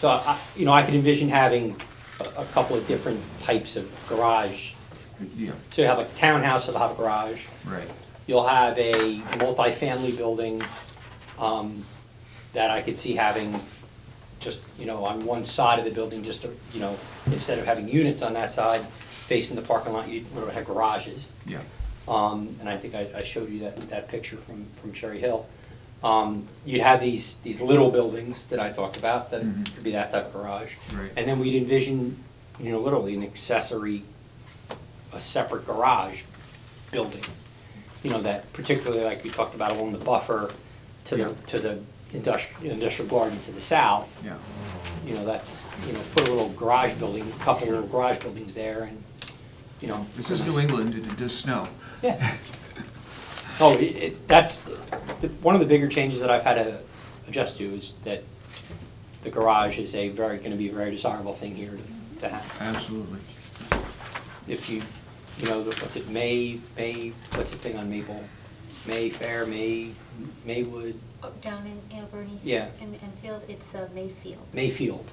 So, I- you know, I could envision having a a couple of different types of garage. Yeah, So you have a townhouse that'll have a garage, right. you'll have a multifamily building um, that I could see having just, you know, on one side of the building, just, to, you know, instead of having units on that side facing the parking lot, you would have garages. Yeah, Um, and I think I, I showed you that, that picture from, from Cherry Hill. Um, you'd have these, these little buildings that I talked about, that Mhm. could be that type of garage. Right. And then we'd envision, you know, literally an accessory, a separate garage building. You know, that particularly like we talked about along the buffer to Yeah. the, to the industrial, industrial garden to the south. yeah, You know, that's, you know, put a little garage building, a couple little garage buildings there and, you know. this is nice- New England, it does snow. yeah. Oh, it, it, that's, the, one of the bigger changes that I've had to adjust to is that the garage is a very, gonna be a very desirable thing here to, to have. Absolutely. If you, you know, the- what's it, May, May, what's the thing on Maple? Mayfair, May, Maywood, Down in Albernies. Yeah. And, and Field, it's uh, Mayfield. Mayfield.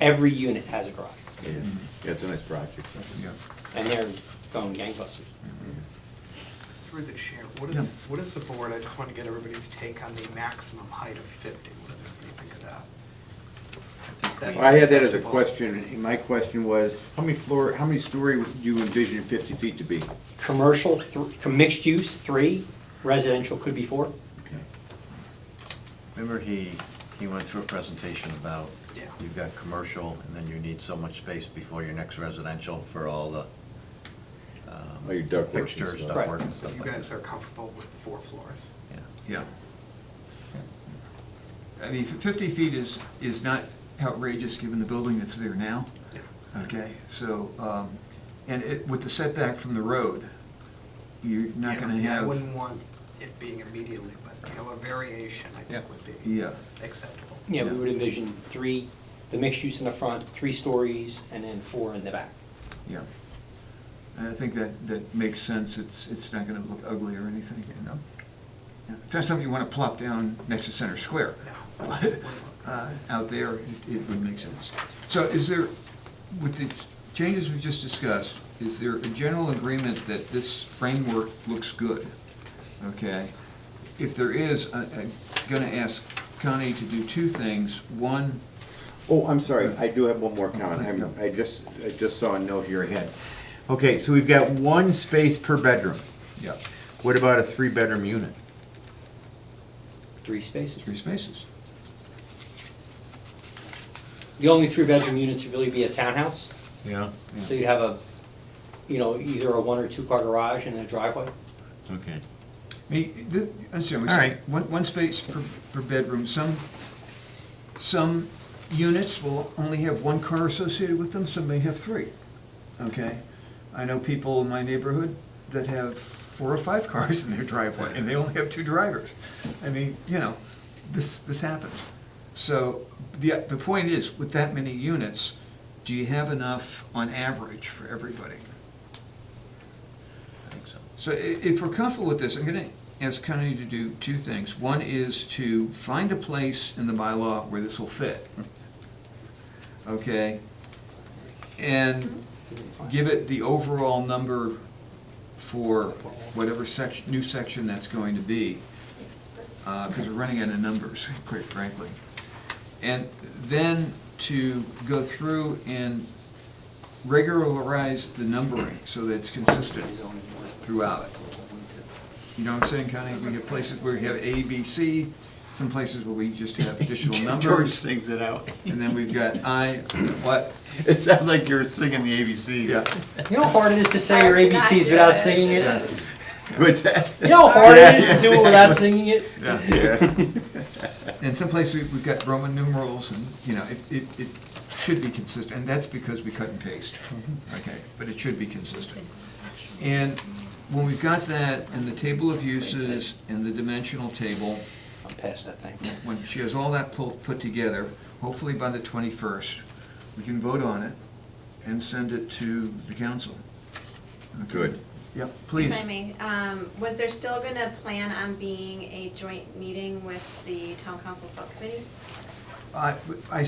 Every unit has a garage, Yeah, yeah, it's a nice project. Yeah. and they're going gangbusters. Through the chair, what Yeah. is, what is the board, I just want to get everybody's take on the maximum height of 50. What does everybody think of that? That's I had that as a acceptable. question, and my question was, how many floor, how many story would you envision fifty feet to be? Commercial, thr- mixed use, three, residential could be four. Remember he, he went through a presentation about, Yeah. you've got commercial, and then you need so much space before your next residential Oh, for all the um, All your ductwork and fixtures, stuff. Right. ductwork and So stuff you like guys that. are comfortable with four floors? Yeah. Yeah. I mean, f- fifty feet is, is not outrageous, given the building that's there now. Yeah. Okay, so, um, and it, with the setback from the road, you're not Yeah. gonna Yeah, I have. wouldn't want it being immediately, but, you know, a variation, I Yeah. think, would be Yeah, acceptable. Yeah, we Yeah. would envision three, the mixed use in the front, three stories, and then four in the back. yeah. And I think that, that makes sense, it's, it's not gonna look ugly or anything, you know? Yeah. It's not something you wanna plop down next to Center Square. No. uh, out there, it- it would make sense. So is there, with the changes we've just discussed, is there a general agreement that this framework looks good? Okay? If there is, I- I'm going to ask Connie to do two things. One, Oh, I'm sorry, I do have one more comment, I'm, I just, I just saw a note here ahead. Okay, so we've got one space per bedroom, yeah, what about a three-bedroom unit? Three spaces. three spaces. The only three-bedroom units would really be a townhouse, Yeah. so you'd have a, you know, either a one or two-car garage and a driveway. Okay. Me- th- Understand, we All said, right. one, one space per, per bedroom. Some, some units will only have one car associated with them, some may have three, okay? I know people in my neighborhood that have four or five cars in their driveway, and they only have two drivers. I mean, you know, this, this happens. So, the, the point is, with that many units, do you have enough on average for everybody? I think so. So i- if we're comfortable with this, I'm gonna ask Connie to do two things. One is to find a place in the bylaw where this will fit. Okay? And give it the overall number for whatever section, new section that's going to be, because we're running out of numbers, quite frankly. And then to go through and regularize the numbering so that it's consistent throughout it. You know what I'm saying, Connie? We have places where we have A, B, C, some places where we just have additional George numbers, sings it out. and then we've got I, what? It sounded like you were singing the ABCs. Yeah, You know how hard it is to say your Hard to not ABCs do without it. singing yeah, it? What's that? You know how hard it is to do it without singing it? yeah. uh, And someplace we- we've got Roman numerals and, you know, it- it, it should be consistent, and that's because we cut and paste, okay? But it should be consistent. And when we've got that, and the table of uses, and the dimensional table, I'm past that thing. when she has all that pulled, put together, hopefully by the twenty-first, we can vote on it and send it to the council. Okay? Good. Yep, please. If I may, um, was there still gonna plan on being a joint meeting with the town council subcommittee? I, I